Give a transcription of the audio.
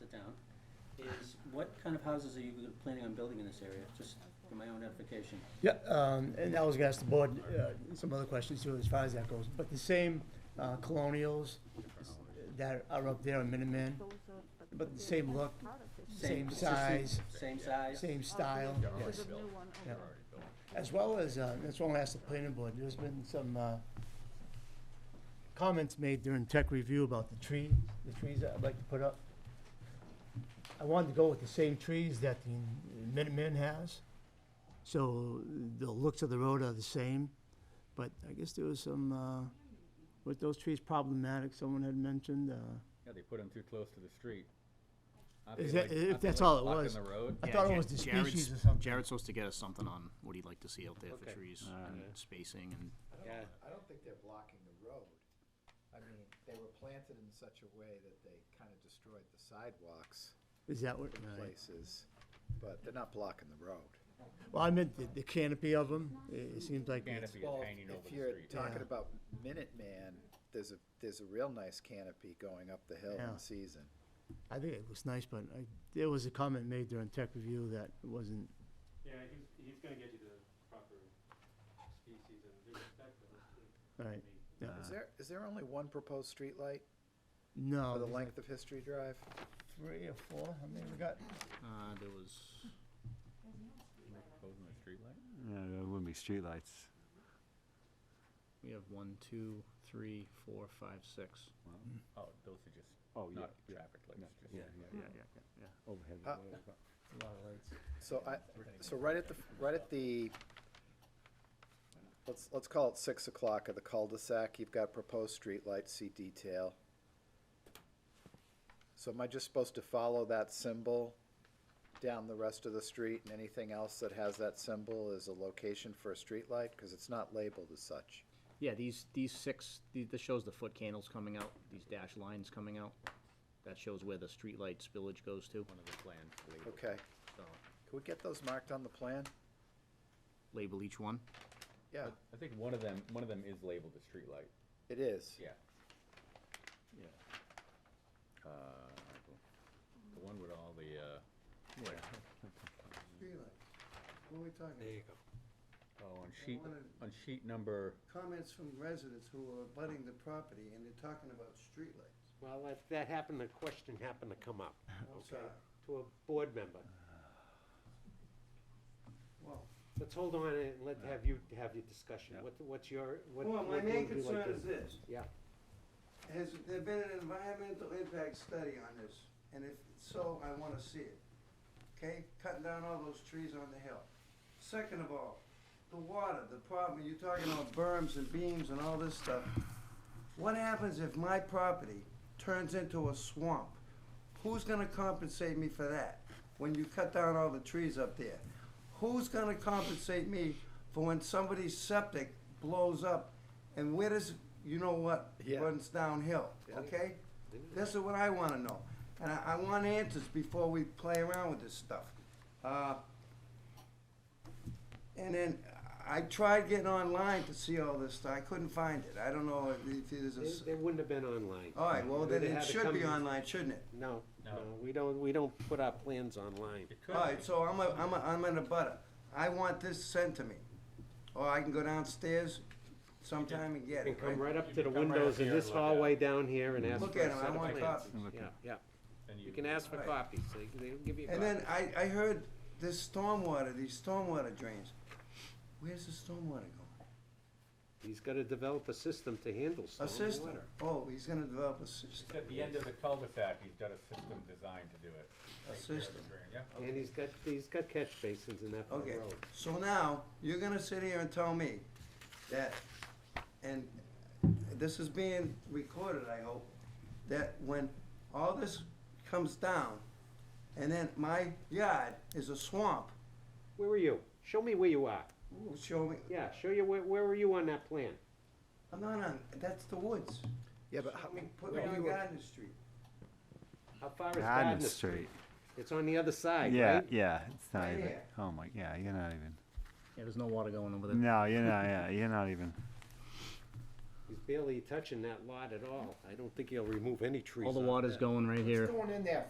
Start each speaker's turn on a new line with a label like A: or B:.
A: the town, is what kind of houses are you planning on building in this area, just for my own edification?
B: Yeah, um, and I was gonna ask the board, uh, some other questions too, as far as that goes, but the same, uh, colonials that are up there on Minuteman, but the same look, same
A: consistent-
B: size,
A: Same size?
B: same style, yes. Yeah. As well as, uh, that's why I asked the planning board, there's been some, uh, comments made during tech review about the tree, the trees that I'd like to put up. I wanted to go with the same trees that the Minuteman has, so the looks of the road are the same, but I guess there was some, uh, with those trees problematic, someone had mentioned, uh,
C: Yeah, they put them too close to the street. Aren't
B: Is
C: they,
B: that-
C: like-
B: if
C: aren't they,
B: that's
C: like,
B: all it
C: blocking
B: was.
C: the road?
B: I
D: Yeah,
B: thought it
D: Ja-
B: was the
D: Jared's-
B: species or something.
D: Jared's supposed to get us something on what he'd like to see out there for
A: Okay.
D: trees
C: Ah,
D: and
C: yeah.
D: spacing and,
A: Yeah,
E: I don't think they're blocking the road. I mean, they were planted in such a way that they kind of destroyed the sidewalks
B: Is that what,
E: in
B: right.
E: places, but they're not blocking the road.
B: well, I meant the, the canopy of them, it it seems like it's,
C: Canopy is hanging over the
E: If you're
C: street.
E: talking
B: Yeah.
E: about Minuteman, there's a, there's a real nice canopy going up the hill
B: Yeah.
E: in season.
B: I think it looks nice, but I, there was a comment made during tech review that wasn't,
F: Yeah, he's, he's gonna get you the proper species and the respect of it. too.
B: right, yeah,
E: Is there, is there only one proposed streetlight
B: no.
E: for the
B: there's like
E: length of History Drive?
B: Three or four, I mean, we got,
D: uh, there was,
C: Posing the streetlight?
G: Yeah, there wouldn't be streetlights.
D: we have one, two, three, four, five, six.
C: Oh, those are just,
G: Oh, yeah,
C: not
G: yeah,
C: traffic
G: yeah,
C: lights, just.
G: yeah, yeah, yeah, yeah, yeah, overhead.
E: Uh,
G: lights, but-
B: a lot of lights.
E: So I, so right at the, right at the, let's, let's call it six o'clock of the cul-de-sac, you've got proposed streetlights, see detail. So am I just supposed to follow that symbol down the rest of the street and anything else that has that symbol is a location for a streetlight? Because it's not labeled as such.
D: Yeah, these, these six, the- this shows the foot candles coming out, these dash lines coming out. That shows where the streetlight spillage goes to. One of the plan.
E: Okay,
D: So,
E: can we get those marked on the plan?
D: label each one.
E: Yeah,
C: I think one of them, one of them is labeled a streetlight,
E: it is.
C: yeah. Yeah. Uh, the one with all the, uh,
H: What are we talking? about?
C: oh, on sheet,
H: wanted-
C: on sheet number,
H: Comments from residents who are abutting the property, and they're talking about streetlights.
F: Well, if that happened, the question happened to come up,
H: I'm
F: okay,
H: sorry.
F: to a board member.
H: Well,
F: Let's hold on and let, have you, have your discussion. What, what's your, what?
H: well, my
F: what would
H: main
F: you like
H: concern
F: to-
H: is this.
F: Yeah.
H: Has there been an environmental impact study on this? And if so, I wanna see it. Okay, cutting down all those trees on the hill. Second of all, the water, the problem, you're talking about berms and beams and all this stuff. What happens if my property turns into a swamp? Who's gonna compensate me for that when you cut down all the trees up there? Who's gonna compensate me for when somebody's septic blows up and where does, you know what,
E: Yeah.
H: runs downhill, okay? This is what I wanna know, and I, I want answers before we play around with this stuff. Uh, and then I tried getting online to see all this stuff. I couldn't find it. I don't know if there's a. s-
F: They, they wouldn't have been online.
H: All right, well, then
F: They
H: it
F: had to
H: should be
F: come-
H: online, shouldn't it?
F: No,
C: No.
F: no, we don't, we don't put our plans online.
C: it could
H: All right,
C: be.
H: so I'm a, I'm a, I'm in a butter. I want this sent to me. Or I can go downstairs sometime and get
F: You
H: it,
F: can come
H: right?
F: right up
C: You
F: to the
C: can come right
F: windows
C: up
F: in
C: here
F: this
C: and look at it.
F: hallway down here and ask for a
H: Look
F: set
H: at 'em. I
F: of
H: want
F: plans.
H: copies.
F: Yeah, yeah,
C: and
F: you can ask for
H: Right.
F: copies, they, they'll give you a copy.
H: And then I, I heard this stormwater, these stormwater drains. Where's the stormwater going?
F: He's gotta develop a system to handle
H: A system.
F: stormwater.
H: Oh, he's gonna develop a system,
C: At the end of the cul-de-sac, he's got a system designed to do it.
H: a
C: Take care of the
H: system.
C: drain, Yeah.
F: And he's got, he's got catch basins in that part of the
H: Okay,
F: road.
H: so now, you're gonna sit here and tell me that, and this is being recorded, I hope, that when all this comes down, and then my yard is a swamp,
F: Where were you? Show me where you are.
H: Ooh, show me,
F: Yeah, show you, where, where were you on that plan?
H: I'm not on, that's the woods.
E: Yeah, but
H: Show
E: how-
H: me- Put me on Gardner Street.
F: How far is
G: Gardner
F: Gardner Street?
G: Street.
F: It's on the other side,
G: Yeah,
F: right?
G: yeah, it's not
H: Right
G: even,
H: here.
G: oh my, yeah, you're not even,
D: Yeah, there's no water going over there.
G: no, you're not, yeah, you're not even.
F: He's barely touching that lot at all. I don't think he'll remove any trees
D: All the
F: off
D: water's
F: that.
D: going right here.
E: It's going in there